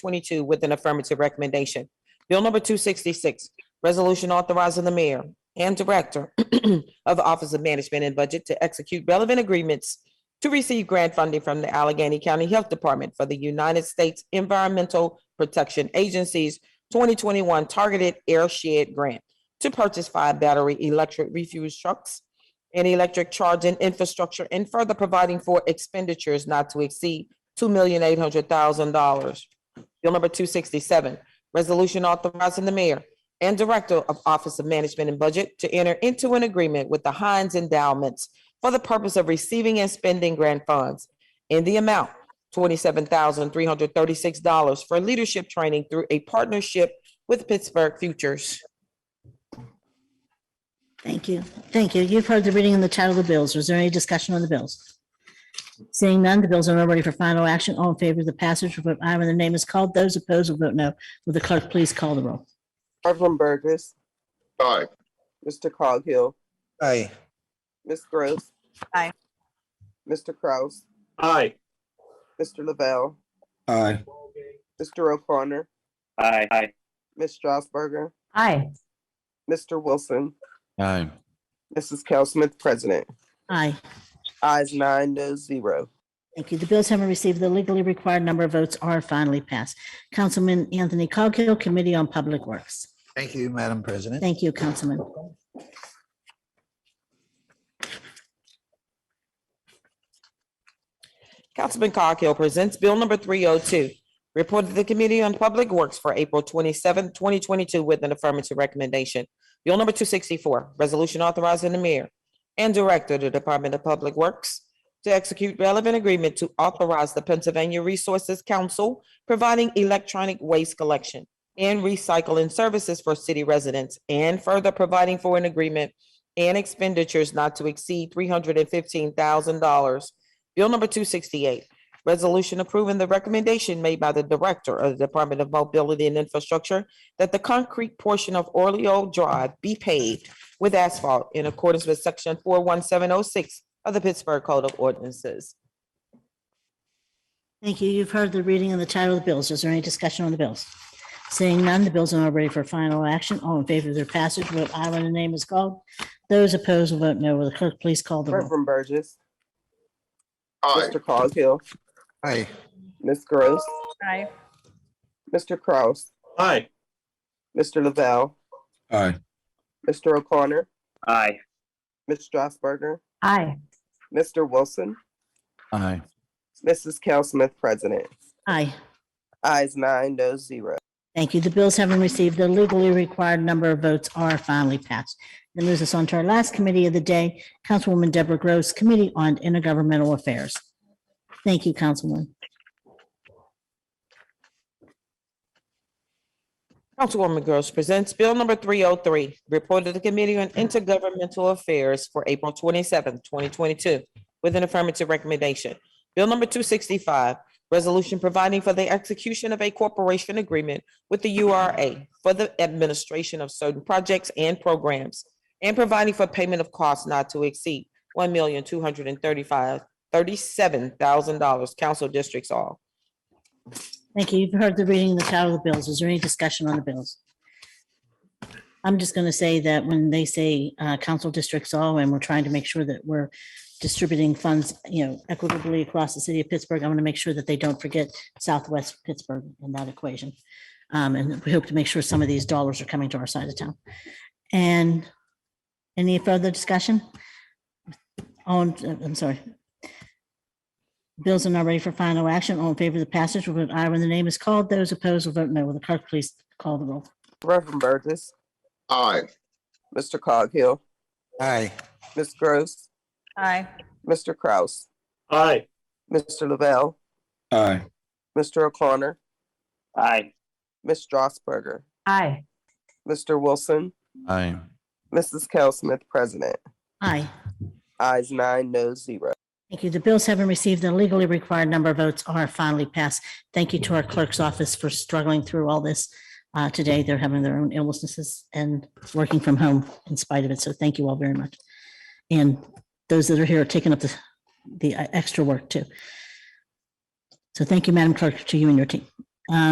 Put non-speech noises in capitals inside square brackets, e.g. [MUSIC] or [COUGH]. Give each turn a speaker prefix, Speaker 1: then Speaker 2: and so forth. Speaker 1: 2022 with an affirmative recommendation. Bill number 266, resolution authorizing the mayor and director [CLEARS THROAT] of the Office of Management and Budget to execute relevant agreements to receive grant funding from the Allegheny County Health Department for the United States Environmental Protection Agency's 2021 Targeted Airshed Grant to purchase five battery electric refuse trucks and electric charging infrastructure and further providing for expenditures not to exceed two million eight hundred thousand dollars. Bill number two sixty-seven, resolution authorizing the mayor and director of Office of Management and Budget to enter into an agreement with the Heinz Endowments for the purpose of receiving and spending grant funds in the amount twenty-seven thousand three hundred thirty-six dollars for leadership training through a partnership with Pittsburgh Futures.
Speaker 2: Thank you. Thank you. You've heard the reading and the title of the bills. Is there any discussion on the bills? Seeing none, the bills are now ready for final action. All in favor of the passage will vote aye when the name is called. Those opposed will vote no. Will the clerk please call the roll?
Speaker 3: Reverend Burgess,
Speaker 4: Aye.
Speaker 3: Mr. Coghill,
Speaker 5: Aye.
Speaker 3: Ms. Gross.
Speaker 6: Aye.
Speaker 3: Mr. Kraus,
Speaker 7: Aye.
Speaker 3: Mr. Lavelle,
Speaker 5: Aye.
Speaker 3: Mr. O'Connor,
Speaker 7: Aye. Aye.
Speaker 3: Ms. Strasburger,
Speaker 6: Aye.
Speaker 3: Mr. Wilson,
Speaker 8: Aye.
Speaker 3: Mrs. Cal Smith, President.
Speaker 2: Aye.
Speaker 3: Eyes nine, no zero.
Speaker 2: Thank you. The bills haven't received the legally required number of votes are finally passed. Councilman Anthony Coghill, Committee on Public Works.
Speaker 5: Thank you, Madam President.
Speaker 2: Thank you, Councilman.
Speaker 1: Councilman Coghill presents Bill number three oh two. Report to the Committee on Public Works for April 27, twenty twenty-two with an affirmative recommendation. Bill number two sixty-four, resolution authorizing the mayor and director of the Department of Public Works to execute relevant agreement to authorize the Pennsylvania Resources Council providing electronic waste collection and recycling services for city residents and further providing for an agreement and expenditures not to exceed three hundred and fifteen thousand dollars Bill number two sixty-eight, resolution approving the recommendation made by the Director of the Department of Mobility and Infrastructure that the concrete portion of Orleo Drive be paved with asphalt in accordance with section four one seven oh six of the Pittsburgh Code of Ordinances.
Speaker 2: Thank you. You've heard the reading and the title of the bills. Is there any discussion on the bills? Seeing none, the bills are now ready for final action. All in favor of their passage, vote aye when the name is called. Those opposed will vote no. Will the clerk please call the roll?
Speaker 3: Reverend Burgess,
Speaker 4: Aye.
Speaker 3: Mr. Coghill,
Speaker 5: Aye.
Speaker 3: Ms. Gross,
Speaker 6: Aye.
Speaker 3: Mr. Kraus,
Speaker 7: Aye.
Speaker 3: Mr. Lavelle,
Speaker 8: Aye.
Speaker 3: Mr. O'Connor,
Speaker 7: Aye.
Speaker 3: Ms. Strasburger,
Speaker 6: Aye.
Speaker 3: Mr. Wilson,
Speaker 8: Aye.
Speaker 3: Mrs. Cal Smith, President.
Speaker 2: Aye.
Speaker 3: Eyes nine, no zero.
Speaker 2: Thank you. The bills having received the legally required number of votes are finally passed. That moves us on to our last committee of the day, Councilwoman Deborah Gross, Committee on Intergovernmental Affairs. Thank you, Councilwoman.
Speaker 1: Councilwoman Gross presents Bill number three oh three, report to the Committee on Intergovernmental Affairs for April 27, twenty twenty-two with an affirmative recommendation. Bill number two sixty-five, resolution providing for the execution of a corporation agreement with the U R A for the administration of certain projects and programs and providing for payment of costs not to exceed one million two hundred and thirty-five, thirty-seven thousand dollars, council districts all.
Speaker 2: Thank you. You've heard the reading and the title of the bills. Is there any discussion on the bills? I'm just going to say that when they say uh, council districts all, and we're trying to make sure that we're distributing funds, you know, equitably across the city of Pittsburgh, I want to make sure that they don't forget Southwest Pittsburgh in that equation. Um, And we hope to make sure some of these dollars are coming to our side of town. And any further discussion? On, I'm sorry, Bills are now ready for final action. All in favor of the passage will vote aye when the name is called. Those opposed will vote no. Will the clerk please call the roll?
Speaker 3: Reverend Burgess,
Speaker 4: Aye.
Speaker 3: Mr. Coghill,
Speaker 5: Aye.
Speaker 3: Ms. Gross,
Speaker 6: Aye.
Speaker 3: Mr. Kraus,
Speaker 7: Aye.
Speaker 3: Mr. Lavelle,
Speaker 8: Aye.
Speaker 3: Mr. O'Connor,
Speaker 7: Aye.
Speaker 3: Ms. Strasburger,
Speaker 6: Aye.
Speaker 3: Mr. Wilson,
Speaker 8: Aye.
Speaker 3: Mrs. Cal Smith, President.
Speaker 2: Aye.
Speaker 3: Eyes nine, no zero.
Speaker 2: Thank you. The bills haven't received the legally required number of votes are finally passed. Thank you to our clerk's office for struggling through all this. uh, Today, they're having their own illnesses and working from home in spite of it. So thank you all very much. And those that are here are taking up the, the uh, extra work too. So thank you, Madam Clerk, to you and your team. Um,